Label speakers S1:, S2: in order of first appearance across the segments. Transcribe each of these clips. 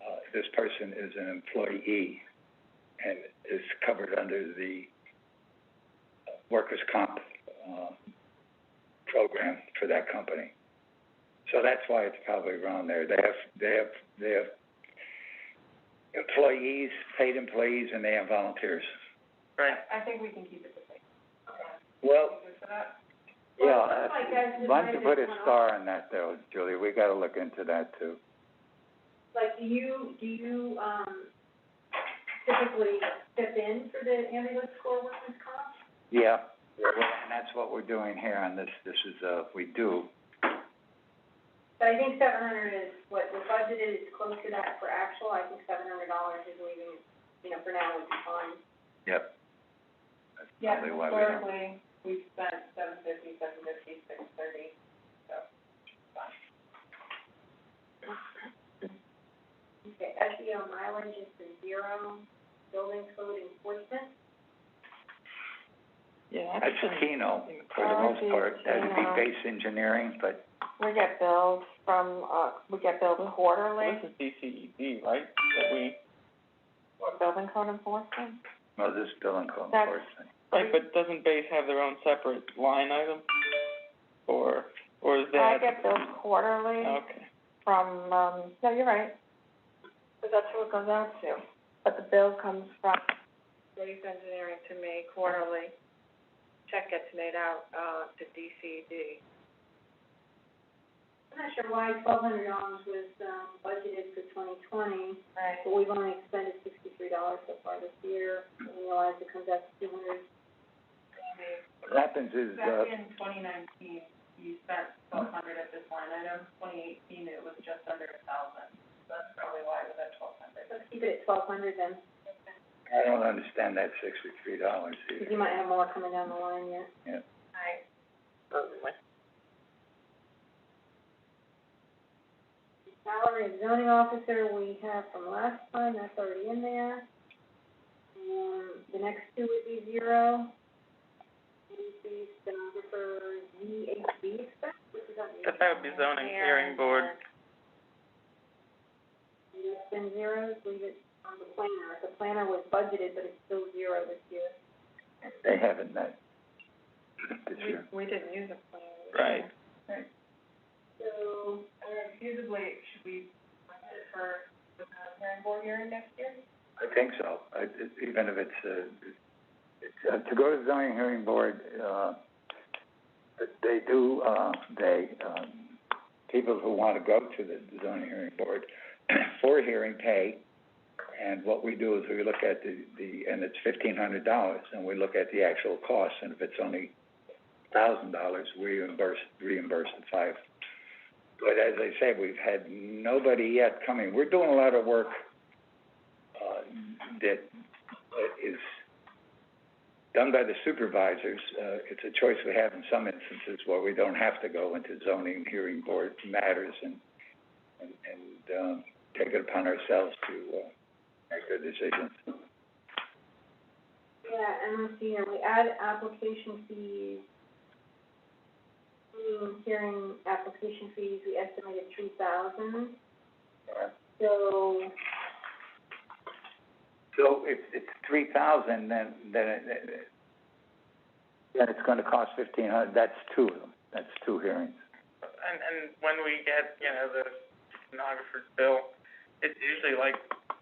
S1: uh, this person is an employee and is covered under the workers' comp, uh, program for that company. So that's why it's probably around there. They have, they have, they have employees, paid employees, and they have volunteers.
S2: Right.
S3: I think we can keep it the same.
S1: Well,
S3: Good for that?
S1: yeah,
S3: Well, I guess
S1: uh,
S3: it
S1: why don't you
S3: might
S1: put a
S3: have
S1: star on that though, Julia? We gotta look into that too.
S3: Like, do you, do you, um, typically step in for the ambulance corps workers' comp?
S1: Yeah. Well, and that's what we're doing here on this, this is, uh, we do,
S3: So I think seven hundred is what the budget is, close to that for actual, I think seven hundred dollars is leaving, you know, for now would be fine.
S1: yep. That's probably why we don't.
S3: we've spent seven fifty, seven fifty, six thirty, so. Okay, SEO mileage is the zero, building code enforcement.
S2: Yeah.
S1: That's Keno, for the most part, that'd be
S4: uh,
S1: base engineering, but
S4: We get billed from, uh, we get billed quarterly,
S2: This is
S1: E
S2: DCED, right, that we,
S4: for building code enforcement.
S1: Well, this billing code
S4: That's-
S1: enforcement.
S2: right, but doesn't base have their own separate line item? Or, or is
S4: I
S2: that?
S4: get billed quarterly
S2: Okay,
S4: from, um, no, you're right, because that's who it goes out to. But the bill comes from Graves Engineering to me quarterly. Check gets made out, uh, to DCD.
S3: I'm not sure why twelve hundred dollars was, um, budgeted for twenty twenty,
S4: Right.
S3: but we've only expended sixty-three dollars so far this year, and we realize it comes out to two hundred.
S1: What happens is, uh,
S3: in twenty nineteen, you spent twelve hundred at this line item, twenty eighteen, it was just under a thousand, so that's probably why it was at twelve hundred. Let's keep it at twelve hundred then,
S1: I don't understand that sixty-three dollars
S3: because
S1: either.
S3: you might have more coming down the line yet.
S1: Yeah.
S3: Alright. Salary of zoning officer, we have from last time, that's already in there. Um, the next two would be zero. And the stenographer, ZHB expense, which is on the.
S2: that would be zoning hearing board,
S3: It's been zeros, leave it on the planner. The planner was budgeted, but it's still zero this year.
S1: They haven't met this year.
S4: We didn't use a plan.
S2: right,
S3: So, uh, feasibly, should we budget for the planning board hearing next year?
S1: I think so, I, it- even if it's, uh, it's, uh, to go to the zoning hearing board, uh, they do, uh, they, um, people who wanna go to the zoning hearing board for hearing pay. And what we do is we look at the, the, and it's fifteen hundred dollars, and we look at the actual cost, and if it's only thousand dollars, we reimburse, reimburse the five. But as I say, we've had nobody yet coming. We're doing a lot of work, uh, that uh, is done by the supervisors. Uh, it's a choice we have in some instances where we don't have to go into zoning hearing board matters and, and, and, um, take it upon ourselves to, uh, make the decisions.
S3: Yeah, and let's see here, we add application fees. Meeting, hearing, application fees, we estimated three thousand, so,
S1: So if it's three thousand, then, then it, it- then it's gonna cost fifteen hundred, that's two of them, that's two hearings.
S2: and, and when we get, you know, the stenographer's bill, it's usually like,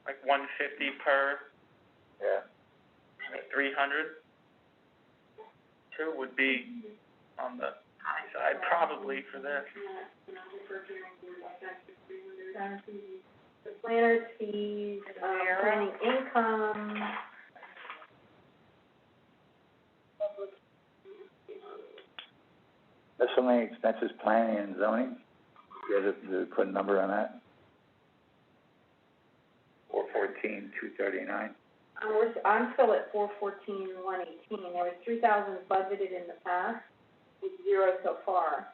S2: like one fifty per,
S1: Yeah.
S2: three hundred. Two would be on the high side probably for this.
S3: yeah, you know, the first hearing fee, that's three hundred. The planner's fees, um,
S4: Zero.
S3: planning income. Public,
S1: Miscellaneous expenses, planning and zoning, you have to, to put a number on that? Four fourteen, two thirty-nine.
S3: I'm, we're- I'm still at four fourteen, one eighteen, there was three thousand budgeted in the past, with zero so far.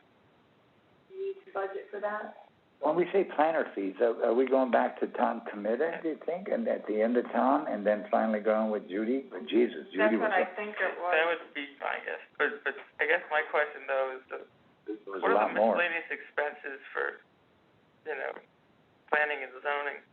S3: You Need to budget for that?
S1: When we say planner fees, are, are we going back to town committee, do you think, and at the end of town, and then finally going with Judy? But Jesus, Judy was, a-
S4: think
S2: That would be my guess, but, but I guess my question though is the,
S1: was
S2: what
S1: a
S2: are
S1: lot
S2: the
S1: more.
S2: miscellaneous expenses for, you know, planning and zoning?